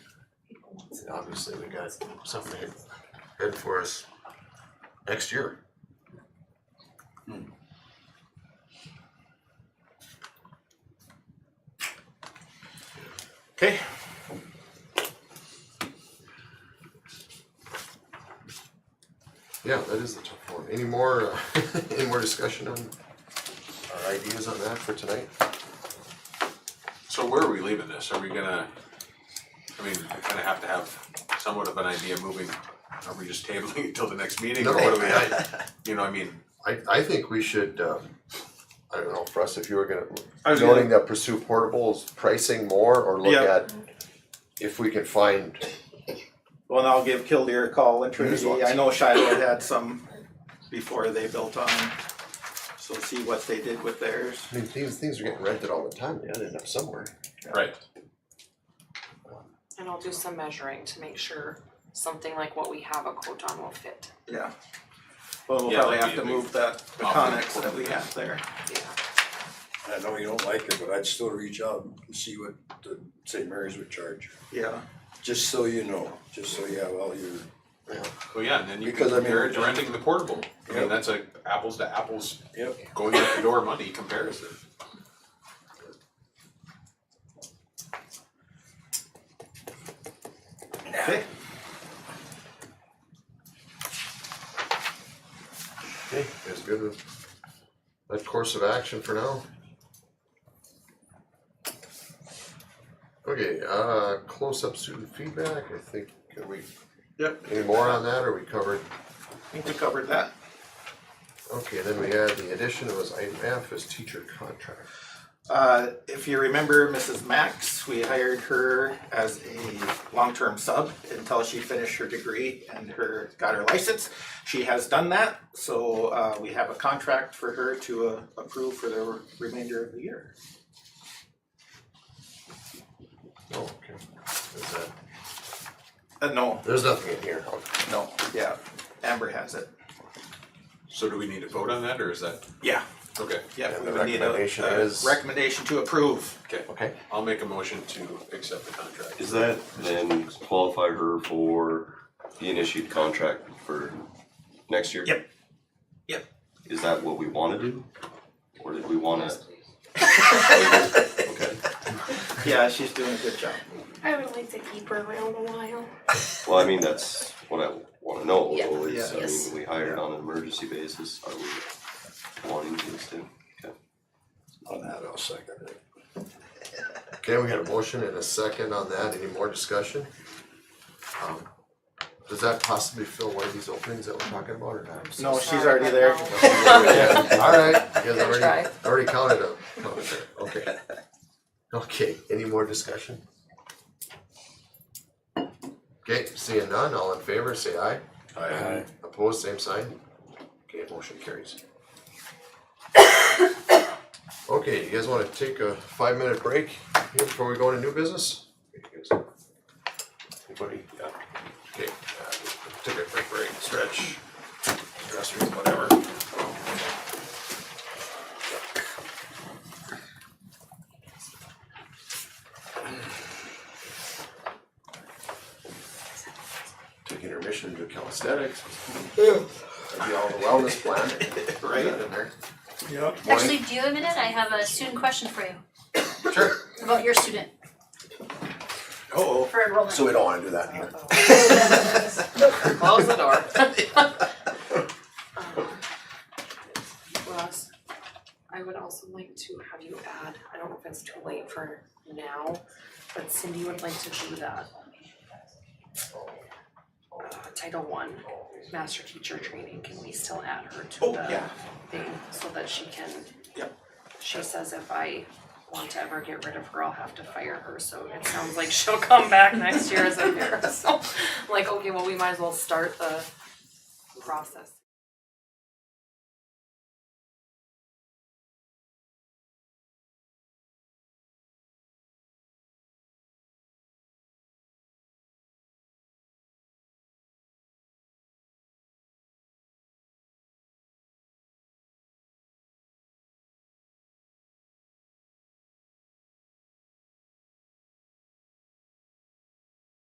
obviously we got something ahead for us next year. Hmm. Okay. Yeah, that is the tough one. Any more, uh, any more discussion on our ideas on that for tonight? So where are we leaving this? Are we gonna, I mean, I kinda have to have somewhat of an idea moving, are we just tabling it till the next meeting or what do we have? You know, I mean, I, I think we should, um, I don't know, for us, if you were I gonna, was gonna- noting that pursue portables pricing more or look Yeah. at if we can find, Well, and I'll give Killdeer a call and Trinity, ones. I know Shiloh had had some before they built on, so see what they did with theirs. I mean, these things are getting rented all the time, they gotta end up somewhere. right, And I'll do some measuring to make sure something like what we have a quote on will fit, Yeah. Well, we'll Yeah, probably that'd have be to a move big- that, the Off the Conex that we have there. yeah. I know you don't like it, but I'd still reach out and see what the St. Mary's would charge, Yeah, just so you know, just so you have all your. well, yeah, and then you can Because I mean- compare it to renting the portable. I mean, Yep. that's a apples to apples, Yep. going out the door money comparison. okay, Okay, that's good with that course of action for now. Okay, uh, close-up student feedback, I think, can we, yep, any more on that, or we covered? I think we covered that. Okay, then we had the addition, it was item F, is teacher contract. Uh, if you remember Mrs. Max, we hired her as a long-term sub until she finished her degree and her, got her license. She has done that, so, uh, we have a contract for her to uh, approve for the remainder of the year. Oh, okay. Is that- Uh, no, There's nothing in here. no, yeah, Amber has it. So do we need to vote on that or is that, Yeah. okay, Yeah, And we the would need a, recommendation a is- recommendation to approve. okay. Okay. I'll make a motion to accept the contract. Is that then qualify her for being issued contract for next year? Yep. Yep. Is that what we wanna do? Or did we wanna? Okay, Yeah, she's doing a good job. I would like to keep her around a while. well, I mean, that's what I wanna know, Yeah. is, I Yes. mean, we hired on an emergency basis, are we wanting to extend? Okay. On that, I'll second it. Okay, we got a motion and a second on that. Any more discussion? Um, Does that possibly fill one of these openings that we're talking about or not? No, she's Sorry, already but there. no. Alright, you guys Good already, try. already counted up. Okay. Okay, any more discussion? Okay, seeing none, all in favor, say aye. Aye. Opposed, same sign. Okay, motion carries. Okay, you guys wanna take a five minute break here before we go into new business? Anybody? Yeah. Okay, uh, take a quick break, stretch, restroom, whatever. Take intermission to calisthenics. That'd be all the wellness plan. Right. Is that in there? Yep. Actually, do you have a minute? I have a student question for you. Sure. About your student Oh, for enrollment. So we don't wanna do that here. Close the door. Um, Ross, I would also like to have you add, I don't know if it's too late for now, but Cindy would like to do that. Uh, Title one, master teacher training, can we still add her to oh, the yeah, thing so that she can? Yep. She says if I want to ever get rid of her, I'll have to fire her, so it sounds like she'll come back next year as a nurse, so. Like, okay, well, we might as well start the process.